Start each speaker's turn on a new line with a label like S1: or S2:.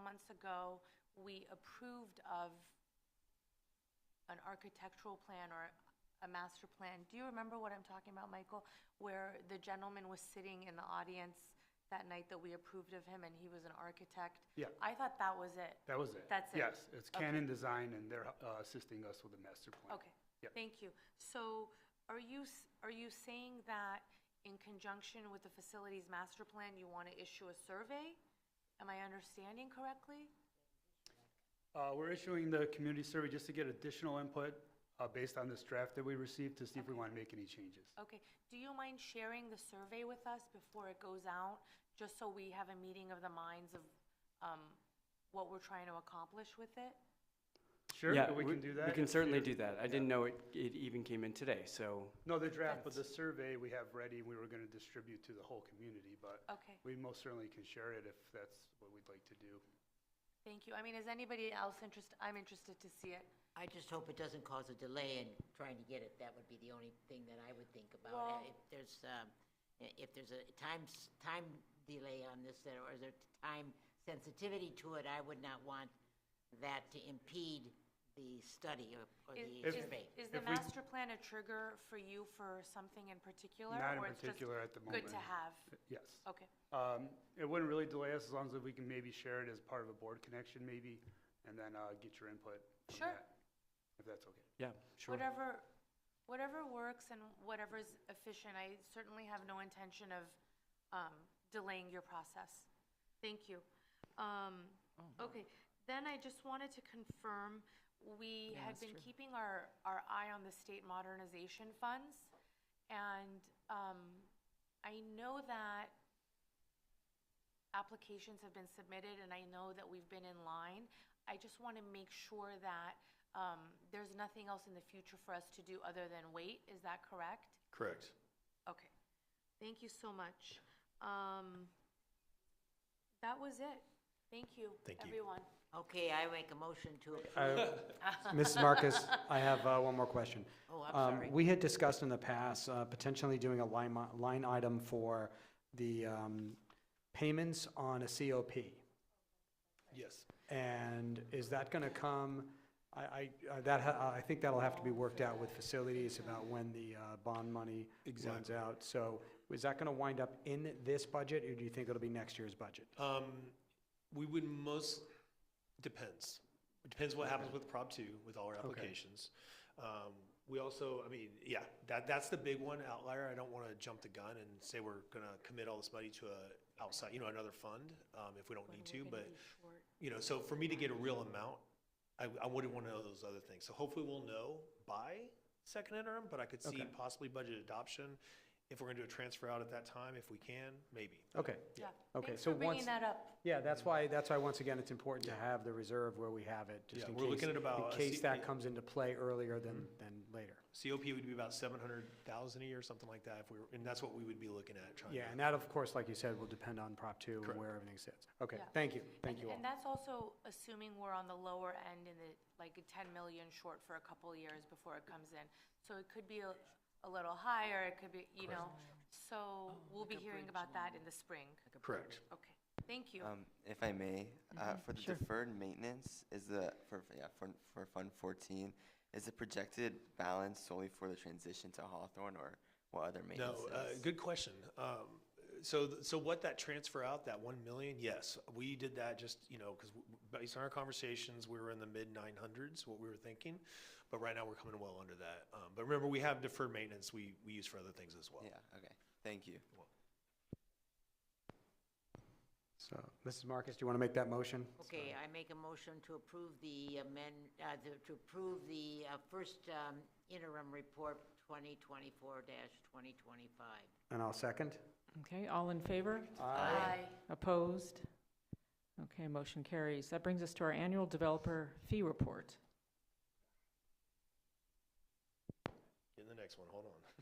S1: months ago, we approved of an architectural plan or a master plan. Do you remember what I'm talking about, Michael? Where the gentleman was sitting in the audience that night that we approved of him, and he was an architect?
S2: Yeah.
S1: I thought that was it.
S2: That was it.
S1: That's it.
S2: Yes, it's
S1: Okay.
S2: Canon Design, and they're uh, assisting us with the master plan.
S1: Okay.
S2: Yep.
S1: Thank you. So are you, s- are you saying that in conjunction with the facilities master plan, you want to issue a survey? Am I understanding correctly?
S2: Uh, We're issuing the community survey just to get additional input uh, based on this draft that we received to see if we want to make any changes.
S1: Okay. Do you mind sharing the survey with us before it goes out? Just so we have a meeting of the minds of um, what we're trying to accomplish with it?
S2: Sure,
S3: Yeah,
S2: we can do that.
S3: We
S2: if
S3: can certainly
S2: you-
S3: do that. I didn't know it, it even came in today, so,
S2: No, the draft, but the survey we have ready, we were going to distribute to the whole community, but
S1: Okay.
S2: we most certainly can share it if that's what we'd like to do.
S1: Thank you. I mean, is anybody else interested? I'm interested to see it.
S4: I just hope it doesn't cause a delay in trying to get it. That would be the only thing that I would think about. Uh,
S1: Well-
S4: If there's, um, i- if there's a time, s- time delay on this, there- or there's time sensitivity to it, I would not want that to impede the study or- or
S1: Is-
S4: the
S1: is-
S4: survey.
S1: Is the
S2: If we-
S1: master plan a trigger for you for something in particular?
S2: Not in
S1: or it's just
S2: particular at the
S1: Good
S2: moment.
S1: to have.
S2: Yes.
S1: Okay.
S2: Um, It wouldn't really delay us as long as we can maybe share it as part of a board connection maybe, and then uh, get your input from
S1: Sure.
S2: that, if that's okay.
S3: yeah, sure.
S1: Whatever, whatever works and whatever's efficient, I certainly have no intention of um, delaying your process. Thank you. Um, Okay, then I just wanted to confirm, we had been keeping our, our eye on the state modernization funds. And um, I know that applications have been submitted, and I know that we've been in line. I just want to make sure that um, there's nothing else in the future for us to do other than wait. Is that correct?
S5: Correct.
S1: Okay. Thank you so much. Um, That was it. Thank you,
S5: Thank you.
S1: everyone.
S4: Okay, I make a motion to approve.
S6: Mrs. Marcus, I have uh, one more question.
S4: Oh, I'm
S6: Um,
S4: sorry.
S6: We had discussed in the past uh, potentially doing a line, mi- line item for the um, payments on a COP.
S2: Yes.
S6: And is that going to come, I, I, uh, that, ha- I think that'll have to be worked out with facilities about when the uh, bond money runs out. So is that going to wind up in this budget, or do you think it'll be next year's budget?
S5: Um, we would most, depends. It Depends what happens with Prop two, with all our applications. Um, we also, I mean, yeah, that, that's the big one outlier. I don't wanna jump the gun and say we're gonna commit all this money to a outside, you know, another fund, um, if we don't need to, but, you know, so for me to get a real amount, I, I wouldn't wanna know those other things. So hopefully we'll know by second interim, but I could see possibly budget adoption. If we're gonna do a transfer out at that time, if we can, maybe.
S6: Okay,
S1: Yeah.
S6: Okay,
S1: Thanks
S6: so
S1: for bringing
S6: once-
S1: that up.
S6: yeah, that's why, that's why, once again, it's important to have the reserve where we have it, just
S5: Yeah,
S6: in
S5: we're
S6: case,
S5: looking at about
S6: in
S5: a
S6: case
S5: C- Mm-hmm.
S6: that comes into play earlier than, than later.
S5: COP would be about seven hundred thousand a year, something like that, if we were, and that's what we would be looking at trying to.
S6: Yeah, and that, of course, like you said, will depend on Prop two and
S5: Correct.
S6: where everything sits. Okay,
S1: Yeah.
S6: thank you, thank
S1: And-
S6: you all.
S1: And that's also assuming we're on the lower end in the, like, a 10 million short for a couple of years before it comes in. So it could be a a little higher, it could be, you know, so we'll be hearing about that in the spring.
S5: Correct.
S1: Okay, thank you.
S7: Um, if I may, uh, for the deferred maintenance, is the, for, yeah, for, for Fund fourteen, is the projected balance solely for the transition to Hawthorne or what other
S5: No,
S7: maintenance?
S5: uh,
S7: is?
S5: good question. Um, so, th- so what that transfer out, that one million, yes, we did that just, you know, because based on our conversations, we were in the mid nine hundreds, what we were thinking. But right now, we're coming well under that. Um, but remember, we have deferred maintenance we, we use for other things as well.
S7: Yeah, okay, thank you.
S6: So, Mrs. Marcus, do you want to make that motion?
S4: Okay, I make a motion to approve the amend, uh, the- to approve the uh, first um, interim report 2024-2025.
S6: And I'll second.
S8: Okay, all in favor?
S1: Aye.
S8: Opposed? Okay, motion carries. That brings us to our annual developer fee report.
S5: In the next one, hold on.